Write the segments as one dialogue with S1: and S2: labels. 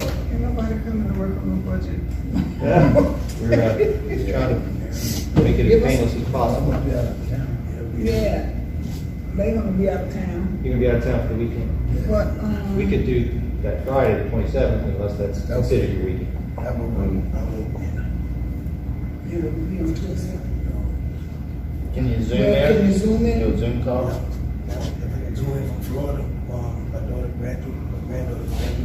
S1: Ain't nobody coming to work on the budget.
S2: Yeah, We're uh, just trying to make it as painless as possible.
S3: be out of town.
S1: Yeah, they gonna be out of town,
S2: You're gonna be out of town for the weekend.
S1: but, um.
S2: We could do that Friday, the twenty-seventh, unless that's considered your weekend.
S3: I'm over, I'm
S1: You know, be on Tuesday.
S4: Can you zoom
S1: Yeah,
S4: in?
S1: can you zoom in?
S4: Do a Zoom
S3: over.
S4: call?
S3: Now, if I can do it from Florida, um, my daughter graduated, my granddaughter graduated.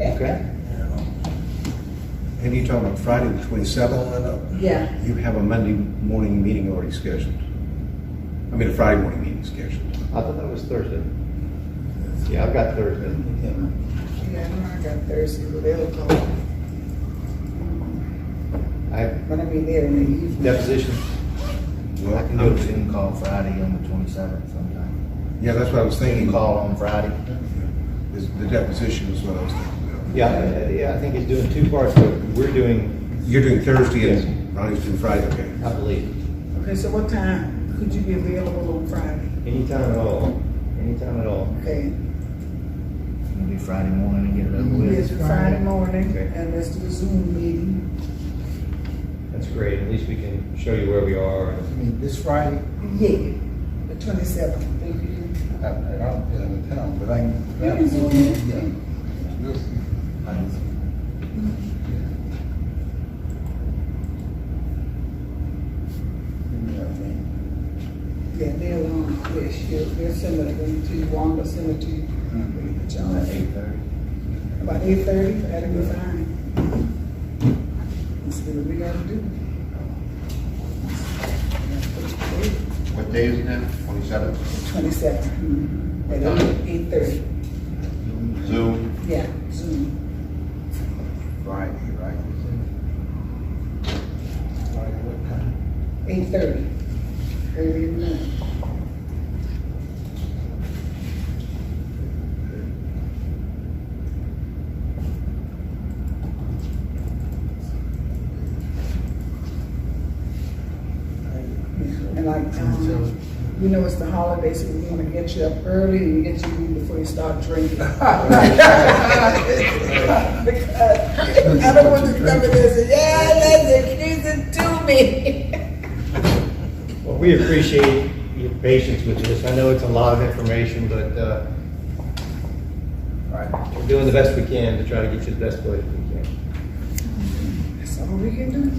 S2: Okay.
S3: And, um,
S5: And you're talking about Friday the twenty-seventh?
S3: Going up.
S1: Yeah,
S5: You have a Monday morning meeting already scheduled. I mean, a Friday morning meeting scheduled.
S2: I thought that was Thursday. Yeah, I've got Thursday.
S1: yeah, I know I got Thursday, but they'll call,
S2: I have
S1: but I be there in the evening.
S2: deposition.
S5: Well,
S4: I can do a Zoom call Friday on the twenty-seventh sometime.
S5: Yeah, that's what I was
S4: Zoom
S5: thinking.
S4: call on Friday.
S5: Is the deposition is what I was thinking of.
S2: Yeah, I- yeah, I think it's doing two parts, but we're doing,
S5: You're doing Thursday
S2: Yes.
S5: and Ronnie's doing Friday, okay.
S2: I believe,
S1: Okay, so what time could you be available on Friday?
S2: anytime at all, anytime at all.
S1: Okay,
S4: It's gonna be Friday morning to get it over
S1: it's
S4: with.
S1: Friday morning,
S2: Okay.
S1: and let's do a Zoom meeting.
S2: That's great, at least we can show you where we are and
S3: I mean, this Friday,
S1: Yeah, the twenty-seventh.
S3: I, I don't get out of town, but I can.
S1: You can zoom in.
S3: Yeah. I can- Yeah, I mean,
S1: Yeah, they'll, um, they'll, share- they'll send it to you, Wanda, send it to you. But y'all at
S4: Eight thirty.
S1: About eight thirty, that'll be fine. That's what we gotta do.
S6: What day is it now? Twenty-seventh?
S1: Twenty-seven, hmm. at eight, eight thirty,
S6: Zoom?
S1: yeah, Zoom.
S6: Friday, right?
S3: Friday, what time?
S1: Eight thirty. Early in the morning. And like, um, you know, it's the holidays, so we wanna get you up early and get you in before you start drinking. Because I don't want you to come in there and say, yeah, that's accusing to me.
S2: Well, we appreciate your patience with this. I know it's a lot of information, but uh, we're doing the best we can to try to get you the best place we can.
S1: That's all we can do.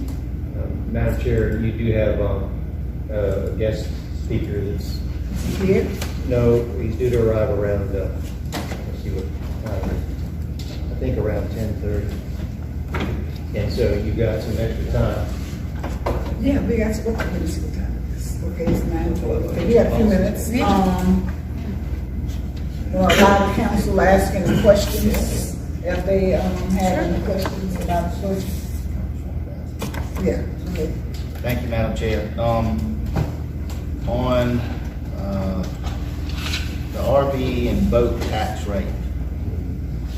S2: Um, Madam Chair, you do have um, a guest speaker that's,
S1: Yeah,
S2: no, he's due to arrive around, uh, let's see what time, it is. I think around 10:30. And so you've got some extra time.
S1: yeah, we got to work on this with time. Okay, it's nine twelve. Okay, We got a few minutes. Um, well, a lot of council asking the questions, if they, um, have any questions about the budget. Yeah, okay.
S4: Thank you, Madam Chair. Um, on, uh, the RV and boat tax rate.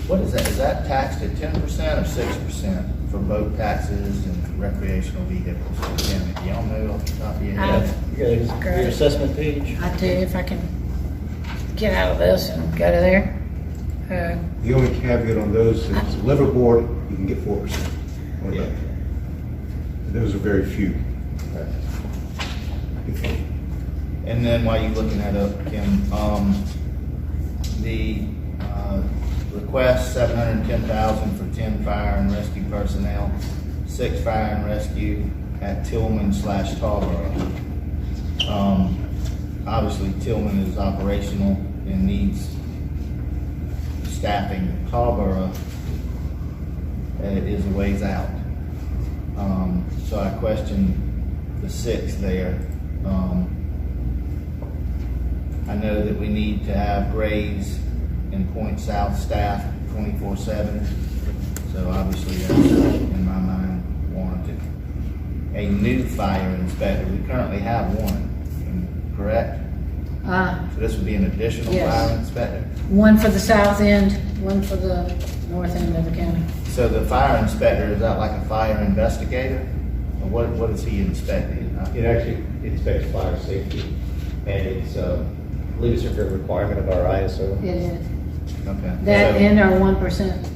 S4: What is that? Is that taxed at ten percent or six percent for boat taxes and recreational vehicles? Again, if y'all know off the top of your
S7: Um,
S4: head.
S2: You got Your assessment page?
S7: I do if I can get out of this and go to there. Uh,
S5: The only caveat on those is if it's a liverboard, you can get four percent.
S2: Yeah.
S5: Those are very few.
S4: And then while you're looking that up, Kim, um, the, uh, request seven hundred and ten thousand for ten fire and rescue personnel, six fire and rescue at Tillman slash Tarboro. Um, obviously Tillman is operational and needs staffing. Tarboro uh, is a ways out. Um, so I question the six there. Um, I know that we need to have Graves and Point South staff twenty-four seven. So obviously, that's uh, in my mind warranted. A new fire inspector, we currently have one, correct?
S7: uh,
S4: So this would be an additional
S7: Yes.
S4: fire inspector?
S7: One for the south end, one for the north end of the county.
S4: So the fire inspector, is that like a fire investigator? Or what, what is he inspecting?
S2: It actually inspects fire safety, and it's, uh, I believe it's a requirement of our ISO.
S7: It is.
S4: Okay.
S7: That
S4: So-
S7: and our one percent